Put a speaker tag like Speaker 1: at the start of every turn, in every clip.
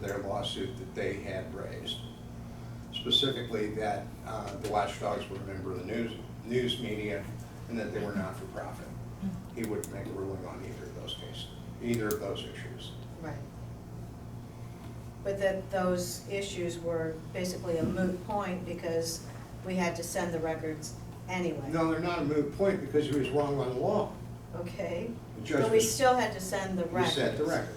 Speaker 1: their lawsuit that they had raised. Specifically that uh, the watchdogs were a member of the news, news media and that they were not for profit. He wouldn't make a ruling on either of those cases, either of those issues.
Speaker 2: Right. But that those issues were basically a moot point because we had to send the records anyway.
Speaker 1: No, they're not a moot point because he was wrong on the law.
Speaker 2: Okay,
Speaker 1: The judge
Speaker 2: but we
Speaker 1: was-
Speaker 2: still had to send the
Speaker 1: He
Speaker 2: records.
Speaker 1: set the records.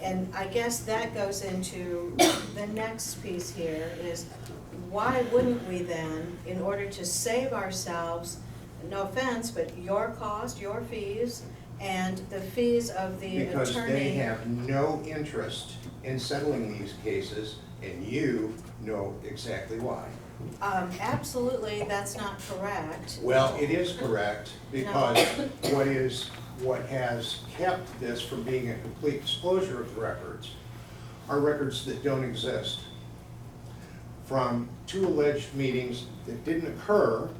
Speaker 2: And I guess that goes into the next piece here is why wouldn't we then, in order to save ourselves, no offense, but your cost, your fees, and the fees of the attorney?
Speaker 1: Because they have no interest in settling these cases, and you know exactly why.
Speaker 2: Um, absolutely, that's not correct.
Speaker 1: Well, it is correct, because what is, what has kept this from being a complete disclosure of the records are records that don't exist. From two alleged meetings that didn't occur,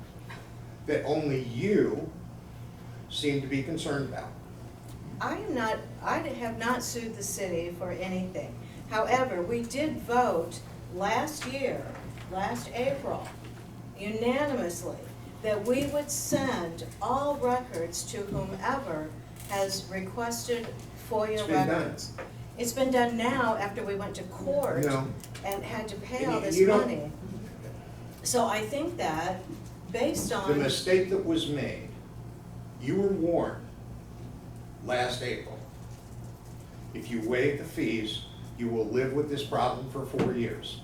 Speaker 1: that only you seem to be concerned about.
Speaker 2: I am not, I have not sued the city for anything. However, we did vote last year, last April, unanimously, that we would send all records to whomever has requested
Speaker 1: It's
Speaker 2: FOIA
Speaker 1: been done.
Speaker 2: records. It's been done now after we went to court
Speaker 1: No.
Speaker 2: and had to pay
Speaker 1: And
Speaker 2: all
Speaker 1: you-
Speaker 2: this
Speaker 1: you don't-
Speaker 2: money. So I think that, based on.
Speaker 1: The mistake that was made, you were warned last April. If you waive the fees, you will live with this problem for four years.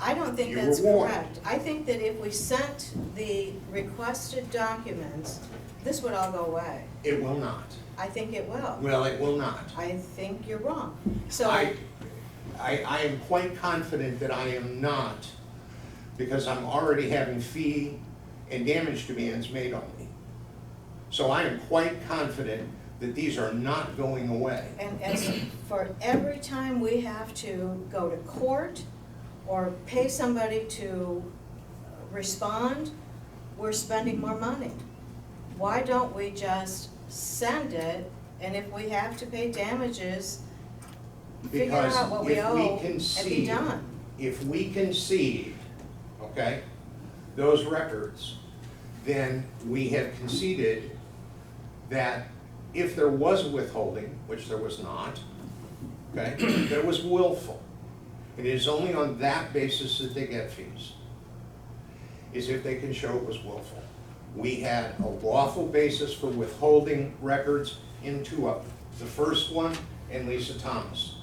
Speaker 2: I don't think
Speaker 1: You were
Speaker 2: that's
Speaker 1: warned.
Speaker 2: correct. I think that if we sent the requested documents, this would all go away.
Speaker 1: It will not.
Speaker 2: I think it will.
Speaker 1: Well, it will not.
Speaker 2: I think you're wrong. So,
Speaker 1: I, I, I am quite confident that I am not, because I'm already having fee and damage demands made on me. So I am quite confident that these are not going away.
Speaker 2: and as for every time we have to go to court or pay somebody to respond, we're spending more money. Why don't we just send it, and if we have to pay damages, figure
Speaker 1: Because
Speaker 2: out what we
Speaker 1: if we
Speaker 2: owe and be
Speaker 1: concede-
Speaker 2: done?
Speaker 1: if we concede, okay, those records, then we have conceded that if there was withholding, which there was not, okay, that it was willful. It is only on that basis that they get fees, is if they can show it was willful. We had a lawful basis for withholding records in two of them, the first one and Lisa Thomas.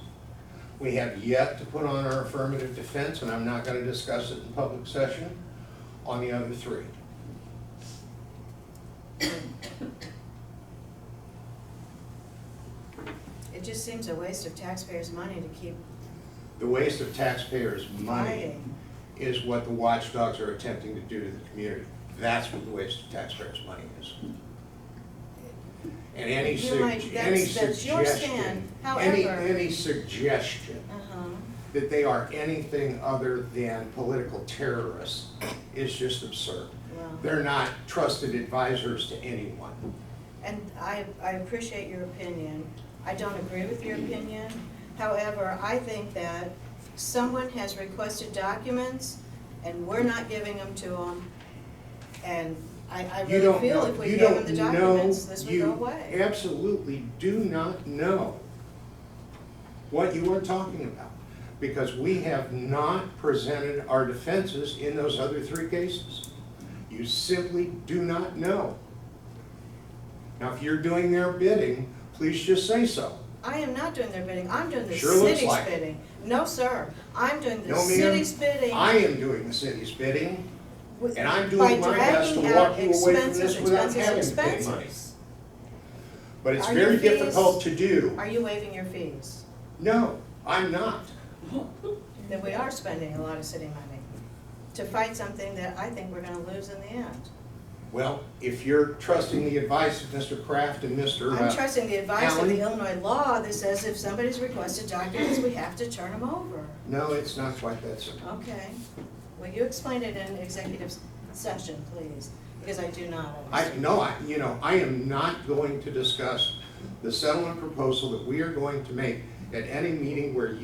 Speaker 1: We have yet to put on our affirmative defense, and I'm not gonna discuss it in public session, on the other three.
Speaker 2: It just seems a waste of taxpayers' money to keep
Speaker 1: The waste of taxpayers' money
Speaker 2: fighting.
Speaker 1: is what the watchdogs are attempting to do to the community. That's what the waste of taxpayers' money is. And any
Speaker 2: You might-
Speaker 1: sug- any
Speaker 2: that's- that's your
Speaker 1: suggestion,
Speaker 2: stand.
Speaker 1: any,
Speaker 2: However-
Speaker 1: any suggestion
Speaker 2: Uh-huh.
Speaker 1: that they are anything other than political terrorists is just absurd.
Speaker 2: Well,
Speaker 1: They're not trusted advisors to anyone.
Speaker 2: and I, I appreciate your opinion. I don't agree with your opinion. However, I think that someone has requested documents and we're not giving them to them. And I, I
Speaker 1: You
Speaker 2: really
Speaker 1: don't
Speaker 2: feel
Speaker 1: know,
Speaker 2: if we
Speaker 1: you
Speaker 2: gave them
Speaker 1: don't
Speaker 2: the
Speaker 1: know,
Speaker 2: documents, this would go
Speaker 1: you
Speaker 2: away.
Speaker 1: absolutely do not know what you are talking about, because we have not presented our defenses in those other three cases. You simply do not know. Now, if you're doing their bidding, please just say so.
Speaker 2: I am not doing their bidding. I'm doing the
Speaker 1: Sure looks
Speaker 2: city's
Speaker 1: like it.
Speaker 2: bidding. No, sir. I'm doing the
Speaker 1: No, ma'am.
Speaker 2: city's bidding.
Speaker 1: I am doing the city's bidding,
Speaker 2: with-
Speaker 1: and I'm
Speaker 2: by
Speaker 1: doing my best to
Speaker 2: dragging
Speaker 1: walk
Speaker 2: out
Speaker 1: you away from
Speaker 2: expenses,
Speaker 1: this without
Speaker 2: expenses,
Speaker 1: having to pay money.
Speaker 2: expenses.
Speaker 1: But it's
Speaker 2: Are your
Speaker 1: very
Speaker 2: fees-
Speaker 1: difficult to do.
Speaker 2: Are you waiving your fees?
Speaker 1: No, I'm not.
Speaker 2: Then we are spending a lot of city money to fight something that I think we're gonna lose in the end.
Speaker 1: Well, if you're trusting the advice of Mr. Kraft and Mr.
Speaker 2: I'm
Speaker 1: uh,
Speaker 2: trusting the advice of the
Speaker 1: Alan?
Speaker 2: Illinois law that says if somebody's requested documents, we have to turn them over.
Speaker 1: No, it's not quite that simple.
Speaker 2: Okay. Will you explain it in executive session, please? Because I do not
Speaker 1: I,
Speaker 2: understand.
Speaker 1: no, I, you know, I am not going to discuss the settlement proposal that we are going to make at any meeting where